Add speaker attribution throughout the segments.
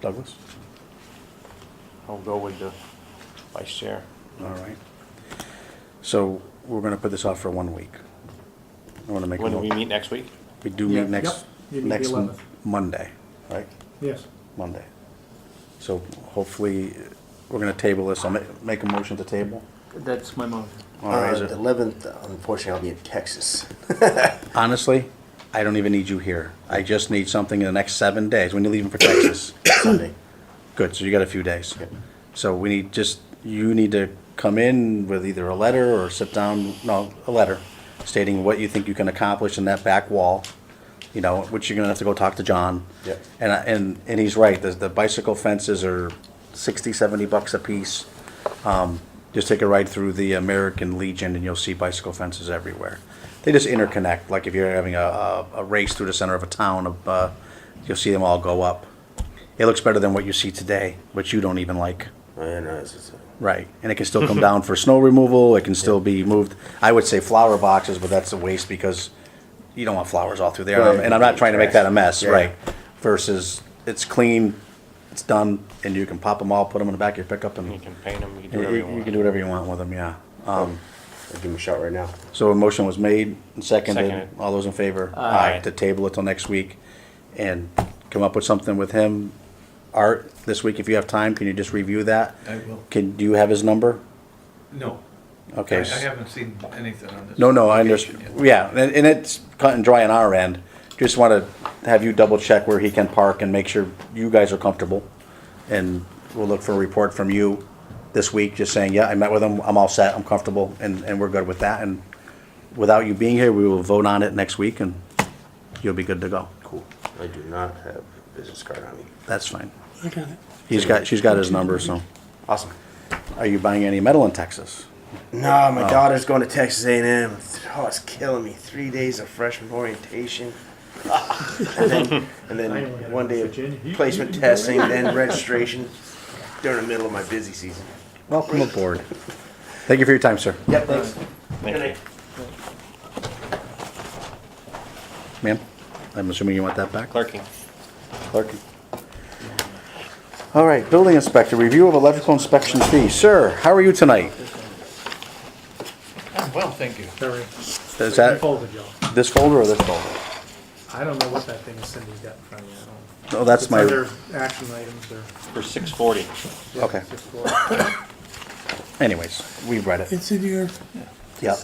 Speaker 1: Douglas?
Speaker 2: I'll go with the vice chair.
Speaker 1: All right. So we're going to put this off for one week. I want to make, a
Speaker 2: When do we
Speaker 1: mo-
Speaker 2: meet next week?
Speaker 1: we do
Speaker 3: Yeah,
Speaker 1: meet next,
Speaker 3: yep. You meet the
Speaker 1: next
Speaker 3: 11th.
Speaker 1: Monday, right?
Speaker 3: Yes.
Speaker 1: Monday. So hopefully, uh, we're going to table this. I'll make, make a motion to table.
Speaker 4: That's my motion.
Speaker 1: All right, is
Speaker 5: Uh,
Speaker 1: it-
Speaker 5: the 11th, unfortunately, I'll be in Texas.
Speaker 1: Honestly, I don't even need you here. I just need something in the next seven days when you're leaving for Texas.
Speaker 5: Sunday.
Speaker 1: Good, so you got a few days. So we need just, you need to come in with either a letter or sit down, no, a letter stating what you think you can accomplish in that back wall, you know, which you're gonna have to go talk to John.
Speaker 5: Yep.
Speaker 1: And, I- and, and he's right, the, the bicycle fences are sixty, seventy bucks a piece. Um, just take a ride through the American Legion and you'll see bicycle fences everywhere. They just interconnect, like if you're having a, a, a race through the center of a town, of, uh, you'll see them all go up. It looks better than what you see today, which you don't even like.
Speaker 5: I know, it's just, uh,
Speaker 1: Right. And it can still come down for snow removal. It can still be moved. I would say flower boxes, but that's a waste because you don't want flowers all through there.
Speaker 5: Right.
Speaker 1: And I'm not trying to make that a mess,
Speaker 5: Yeah.
Speaker 1: right? Versus it's clean, it's done, and you can pop them all, put them in the back of your pickup, and
Speaker 2: You can paint them, you can do
Speaker 1: you,
Speaker 2: whatever
Speaker 1: you
Speaker 2: you
Speaker 1: can
Speaker 2: want.
Speaker 1: do whatever you want with them, yeah. Um,
Speaker 5: I'll give him a shot right now.
Speaker 1: so a motion was made and seconded.
Speaker 2: Seconded.
Speaker 1: All those in favor?
Speaker 2: Aye.
Speaker 1: To table it till next week and come up with something with him. Art, this week, if you have time, can you just review that?
Speaker 6: I will.
Speaker 1: Can, do you have his number?
Speaker 6: No. I
Speaker 1: Okay.
Speaker 6: I haven't seen anything on this.
Speaker 1: No, no, I
Speaker 6: application
Speaker 1: understand. Yeah, and, and it's cut and dry on our end. Just want to have you double check where he can park and make sure you guys are comfortable. And we'll look for a report from you this week, just saying, yeah, I met with him, I'm all set, I'm comfortable, and, and we're good with that. And without you being here, we will vote on it next week and you'll be good to go. Cool.
Speaker 5: I do not have a business card on me.
Speaker 1: That's fine. I got it. He's got, she's got his number, so.
Speaker 5: Awesome.
Speaker 1: Are you buying any metal in Texas?
Speaker 5: Nah, my daughter's going to Texas A&M. Oh, it's killing me. Three days of freshman orientation. and then, and
Speaker 3: I only had
Speaker 5: then one day of
Speaker 3: Virginia. You-
Speaker 5: placement
Speaker 3: you-
Speaker 5: testing, then registration during the middle of my busy season.
Speaker 1: Welcome aboard. Thank you for your time, sir.
Speaker 5: Yep, thanks.
Speaker 2: Thank you.
Speaker 1: Ma'am, I'm assuming you want that back?
Speaker 2: Clerking.
Speaker 1: Clerk. All right, building inspector, review of electrical inspection fee. Sir, how are you tonight?
Speaker 6: Well, thank you.
Speaker 3: Sorry.
Speaker 1: Is that
Speaker 3: Folded, y'all.
Speaker 1: this folder or this folder?
Speaker 3: I don't know what that thing Cindy's got in front of you. I don't-
Speaker 1: No, Oh, that's
Speaker 3: It's
Speaker 1: my,
Speaker 3: Other action items or.
Speaker 2: For six forty.
Speaker 3: yeah,
Speaker 1: Okay.
Speaker 3: it's just for-
Speaker 1: anyways, we read it.
Speaker 7: It's in your,
Speaker 1: Yeah,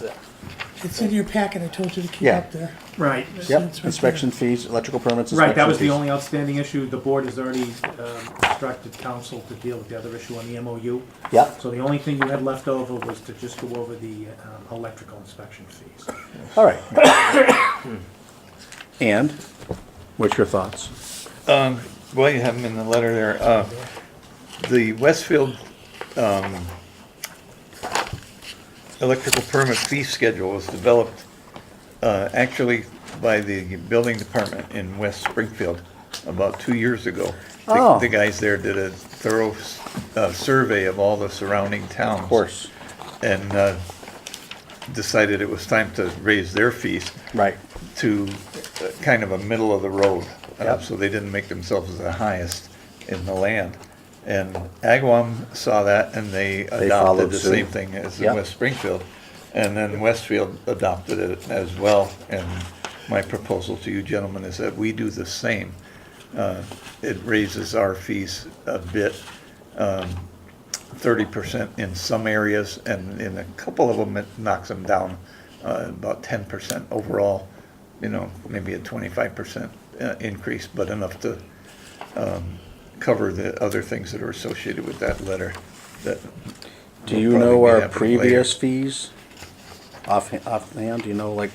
Speaker 7: it's in your packet, I told you to keep
Speaker 1: Yeah.
Speaker 7: up there.
Speaker 3: Right.
Speaker 1: yep, inspection fees, electrical permits.
Speaker 3: Right, that was the
Speaker 1: inspection
Speaker 3: only outstanding issue. The board has already um, instructed council to deal with the other issue on the MOU.
Speaker 1: fees. Yep,
Speaker 3: So the only thing you had left over was to just go over the um, electrical inspection fees.
Speaker 1: all right. And, what's your thoughts?
Speaker 6: Um, Well, you have them in the letter there. Uh, The Westfield um, electrical permit fee schedule was developed uh, actually by the building department in West Springfield about two years ago. The-
Speaker 1: Oh.
Speaker 6: The guys there did a thorough uh, survey of all the surrounding towns.
Speaker 1: Of course,
Speaker 6: and uh, decided it was time to raise their fees
Speaker 1: right,
Speaker 6: to uh, kind of a middle of the road. uh,
Speaker 1: Yep.
Speaker 6: So they didn't make themselves the highest in the land. And Agawam saw that and they
Speaker 1: followed
Speaker 6: adopted the
Speaker 1: suit.
Speaker 6: same thing as
Speaker 1: Yep.
Speaker 6: in West Springfield. And then Westfield adopted it as well. And my proposal to you gentlemen is that we do the same. Uh, It raises our fees a bit, um, thirty percent in some areas, and in a couple of them, it knocks them down uh, about ten percent overall. You know, maybe a twenty-five percent uh, increase, but enough to um, cover the other things that are associated with that letter. That
Speaker 1: do
Speaker 6: will
Speaker 1: you
Speaker 6: probably
Speaker 1: know
Speaker 6: be
Speaker 1: our
Speaker 6: happening later.
Speaker 1: previous fees? Off, offhand, do you know, like,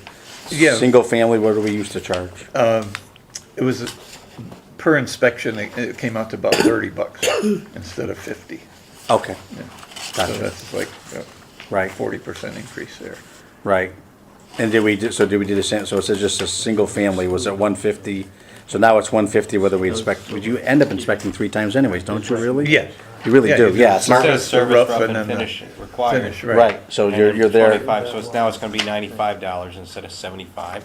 Speaker 6: Yeah. Uh,
Speaker 1: single family, what do we used to charge?
Speaker 6: It was, per inspection, it it came out to about thirty bucks instead of fifty.
Speaker 1: Okay,
Speaker 6: So
Speaker 1: gotcha,
Speaker 6: that's like a
Speaker 1: right.
Speaker 6: forty percent increase there.
Speaker 1: Right. And did we, do- so did we do the same, so it says just a single family, was it one fifty? So now it's one fifty whether we inspect, would you end up inspecting three times anyways, don't you really?
Speaker 6: Yeah.
Speaker 1: You really
Speaker 6: Yeah,
Speaker 1: do,
Speaker 6: you do.
Speaker 1: yeah, it's not,
Speaker 2: Instead
Speaker 6: Sure.
Speaker 2: of
Speaker 6: the
Speaker 2: service
Speaker 6: rough
Speaker 2: rough
Speaker 6: and
Speaker 2: and
Speaker 6: then the
Speaker 2: finish required.
Speaker 6: Finish,
Speaker 1: right, so
Speaker 2: And
Speaker 1: you're,
Speaker 2: it's
Speaker 1: you're there,
Speaker 2: Twenty-five, so it's now it's gonna be ninety-five dollars instead of seventy-five.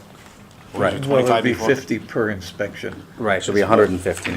Speaker 1: right,
Speaker 6: Well, it'd
Speaker 2: 25
Speaker 6: be
Speaker 2: before.
Speaker 6: fifty per inspection.
Speaker 1: right, so it'll be hundred and fifty